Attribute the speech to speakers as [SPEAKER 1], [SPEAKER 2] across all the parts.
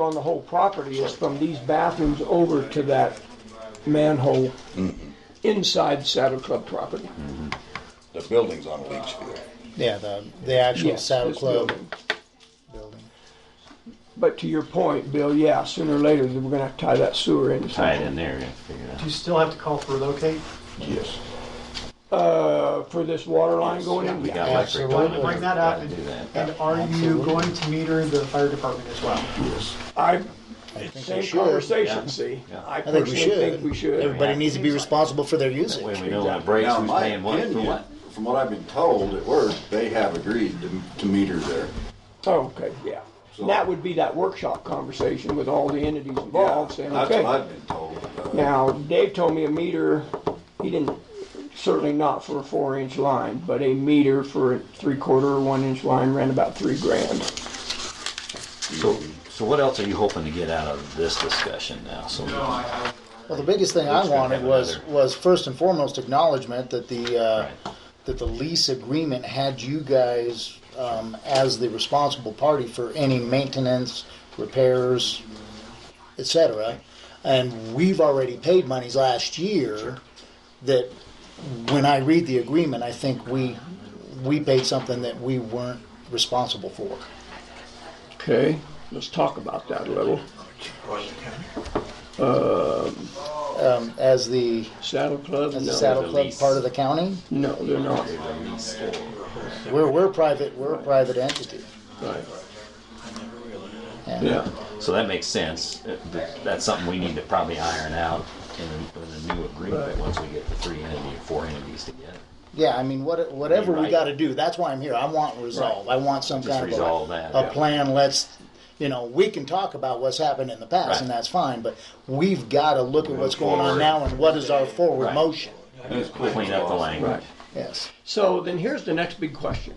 [SPEAKER 1] on the whole property is from these bathrooms over to that manhole
[SPEAKER 2] Mm-hmm.
[SPEAKER 1] inside Saddle Club property.
[SPEAKER 3] Mm-hmm.
[SPEAKER 4] The building's on Leachfield.
[SPEAKER 3] Yeah, the, the actual
[SPEAKER 1] Yes,
[SPEAKER 3] Saddle
[SPEAKER 1] this
[SPEAKER 3] Club
[SPEAKER 1] building.
[SPEAKER 3] building.
[SPEAKER 1] But to your point, Bill, yeah, sooner or later, we're gonna have to tie that sewer in.
[SPEAKER 2] tie it in there, we have to figure it
[SPEAKER 5] Do
[SPEAKER 2] out.
[SPEAKER 5] you still have to call for relocate?
[SPEAKER 4] Yes.
[SPEAKER 1] Uh, for this water line going in?
[SPEAKER 2] We
[SPEAKER 1] Yeah.
[SPEAKER 2] got electric
[SPEAKER 3] Absolutely.
[SPEAKER 2] going.
[SPEAKER 5] When when that
[SPEAKER 2] gotta
[SPEAKER 5] happens,
[SPEAKER 2] do that.
[SPEAKER 5] and are you going to meter the fire department as well?
[SPEAKER 1] I,
[SPEAKER 3] I think we
[SPEAKER 1] same
[SPEAKER 3] should.
[SPEAKER 1] conversation,
[SPEAKER 2] yeah.
[SPEAKER 1] see?
[SPEAKER 2] Yeah.
[SPEAKER 1] I
[SPEAKER 3] I think we
[SPEAKER 1] personally
[SPEAKER 3] should.
[SPEAKER 1] think we should.
[SPEAKER 3] Everybody needs to be responsible for their
[SPEAKER 2] That way
[SPEAKER 3] usage.
[SPEAKER 2] we know when it breaks,
[SPEAKER 4] Now,
[SPEAKER 2] who's
[SPEAKER 4] my
[SPEAKER 2] paying what for
[SPEAKER 4] opinion,
[SPEAKER 2] what.
[SPEAKER 4] from what I've been told at work, they have agreed to, to meter there.
[SPEAKER 1] Oh, okay, yeah. And that would be that workshop conversation with all the entities involved saying,
[SPEAKER 4] That's what
[SPEAKER 1] okay.
[SPEAKER 4] I've been told. Uh,
[SPEAKER 1] Now, Dave told me a meter, he didn't, certainly not for a four inch line, but a meter for a three quarter or one inch line ran about three grand.
[SPEAKER 2] So, so what else are you hoping to get out of this discussion now? So,
[SPEAKER 3] Well, the biggest thing I
[SPEAKER 2] Let's go
[SPEAKER 3] wanted
[SPEAKER 2] have
[SPEAKER 3] was,
[SPEAKER 2] another.
[SPEAKER 3] was first and foremost acknowledgement that the, uh, that the lease agreement had you guys, um, as the responsible party for any maintenance, repairs, et cetera. And we've already paid monies last year that when I read the agreement, I think we, we paid something that we weren't responsible for.
[SPEAKER 1] Okay, let's talk about that a little.
[SPEAKER 3] Um, as the,
[SPEAKER 1] Saddle Club?
[SPEAKER 3] as
[SPEAKER 1] No.
[SPEAKER 3] the Saddle
[SPEAKER 2] the
[SPEAKER 3] Club
[SPEAKER 2] lease.
[SPEAKER 3] part of the county,
[SPEAKER 1] No, they're not,
[SPEAKER 3] we're, we're private, we're a private entity.
[SPEAKER 1] right,
[SPEAKER 3] Yeah.
[SPEAKER 1] yeah.
[SPEAKER 2] so that makes sense. Uh, th- That's something we need to probably iron out in a, in a new agreement once we get the three entity or four entities together.
[SPEAKER 3] Yeah, I mean, what, whatever we
[SPEAKER 2] Right.
[SPEAKER 3] got to do, that's why I'm here. I want resolve. I want some
[SPEAKER 2] Just
[SPEAKER 3] kind of
[SPEAKER 2] resolve
[SPEAKER 3] a,
[SPEAKER 2] that,
[SPEAKER 3] a
[SPEAKER 2] yeah.
[SPEAKER 3] plan. Let's, you know, we can talk about what's happened in the past,
[SPEAKER 2] Right.
[SPEAKER 3] and that's fine. But we've got to look at what's going on
[SPEAKER 2] forward.
[SPEAKER 3] now and what is our forward
[SPEAKER 2] Right.
[SPEAKER 3] motion.
[SPEAKER 4] it's quick,
[SPEAKER 2] Clean up the
[SPEAKER 4] boss.
[SPEAKER 2] language.
[SPEAKER 3] Yes.
[SPEAKER 1] So then here's the next big question.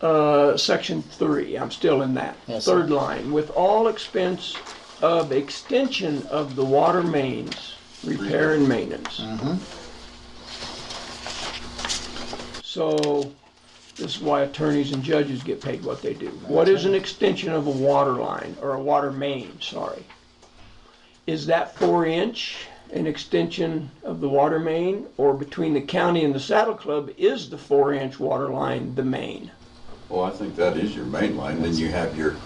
[SPEAKER 1] Uh, section three, I'm still in that.
[SPEAKER 3] Yes, sir.
[SPEAKER 1] Third line, with all expense of extension of the water mains, repair and maintenance.
[SPEAKER 3] Mm-hmm.
[SPEAKER 1] So this is why attorneys and judges get paid what they do. What is an extension of a water line or a water main, sorry? Is that four inch an extension of the water main or between the county and the saddle club is the four inch water line the main?
[SPEAKER 4] Well, I think that is your main line, then you have your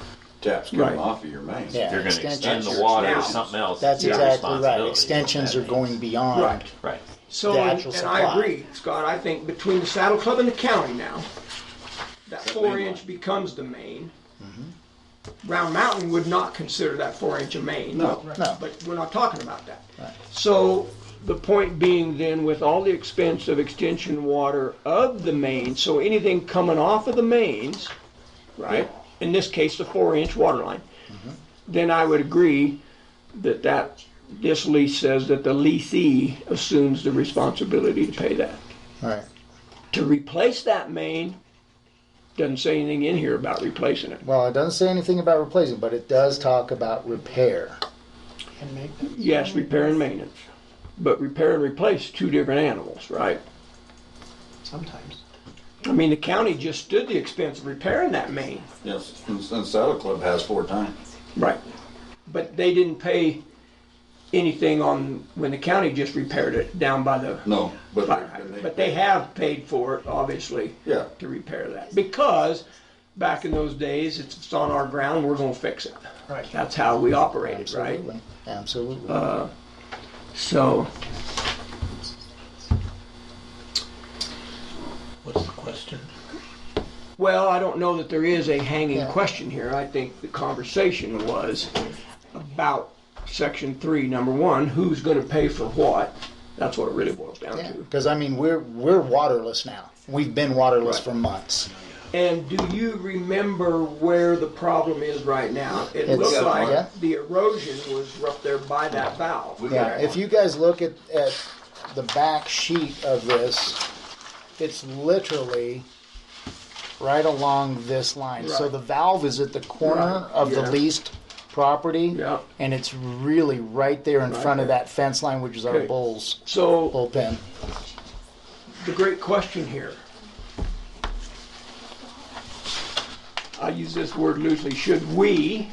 [SPEAKER 4] taps
[SPEAKER 1] Right.
[SPEAKER 4] coming off of your main.
[SPEAKER 3] Yeah.
[SPEAKER 2] If you're going to extend
[SPEAKER 3] Extensions.
[SPEAKER 2] the water
[SPEAKER 1] Now.
[SPEAKER 2] or something else,
[SPEAKER 3] That's
[SPEAKER 2] it's your
[SPEAKER 3] exactly right.
[SPEAKER 2] responsibility.
[SPEAKER 3] Extensions
[SPEAKER 2] That
[SPEAKER 3] are going
[SPEAKER 2] means-
[SPEAKER 3] beyond.
[SPEAKER 2] Right.
[SPEAKER 1] So,
[SPEAKER 3] The
[SPEAKER 1] and
[SPEAKER 3] actual
[SPEAKER 1] and I
[SPEAKER 3] supply.
[SPEAKER 1] agree, Scott, I think between the saddle club and the county now, that four
[SPEAKER 4] main
[SPEAKER 1] inch
[SPEAKER 4] line.
[SPEAKER 1] becomes the main. Round Mountain would not consider that four inch a main.
[SPEAKER 4] No.
[SPEAKER 3] No.
[SPEAKER 1] But we're not talking about that. So the point being then, with all the expense of extension water of the main, so anything coming off of the mains, right? In this case, the four inch water line, then I would agree that that, this lease says that the leasee assumes the responsibility to pay that.
[SPEAKER 3] All right.
[SPEAKER 1] To replace that main, doesn't say anything in here about replacing it.
[SPEAKER 3] Well, it doesn't say anything about replacing, but it does talk about repair.
[SPEAKER 5] And make,
[SPEAKER 1] Yes, repair and maintenance, but repair and replace, two different animals, right?
[SPEAKER 5] sometimes.
[SPEAKER 1] I mean, the county just stood the expense of repairing that main.
[SPEAKER 4] Yes, and, and Saddle Club has four times.
[SPEAKER 1] Right. But they didn't pay anything on, when the county just repaired it down by the
[SPEAKER 4] No, but.
[SPEAKER 1] fire hydrant. But they have paid for it, obviously.
[SPEAKER 4] Yeah.
[SPEAKER 1] To repair that, because back in those days, it's it's on our ground, we're gonna fix it.
[SPEAKER 5] Right.
[SPEAKER 1] That's how we operated, right?
[SPEAKER 3] Absolutely. Absolutely.
[SPEAKER 1] So,
[SPEAKER 6] What's the question?
[SPEAKER 1] well, I don't know that there is a hanging
[SPEAKER 3] Yeah.
[SPEAKER 1] question here. I think the conversation was about section three, number one, who's gonna pay for what? That's what it really boils down
[SPEAKER 3] yeah.
[SPEAKER 1] to.
[SPEAKER 3] Because I mean, we're we're waterless now. We've been waterless
[SPEAKER 1] Right.
[SPEAKER 3] for months.
[SPEAKER 1] And do you remember where the problem is right now? It looks
[SPEAKER 3] It's-
[SPEAKER 1] like
[SPEAKER 3] yeah.
[SPEAKER 1] the erosion was up there by that valve.
[SPEAKER 3] Yeah, if you guys look at, at the back sheet of this, it's literally right along this line. So
[SPEAKER 1] Right.
[SPEAKER 3] the valve is at the corner
[SPEAKER 1] Right,
[SPEAKER 3] of
[SPEAKER 1] yeah.
[SPEAKER 3] the leased property,
[SPEAKER 1] Yeah.
[SPEAKER 3] and it's really right there in
[SPEAKER 1] Right
[SPEAKER 3] front of
[SPEAKER 1] there.
[SPEAKER 3] that fence line, which is our
[SPEAKER 1] Okay.
[SPEAKER 3] bulls
[SPEAKER 1] So
[SPEAKER 3] bullpen.
[SPEAKER 1] the great question here, I use this word loosely, should we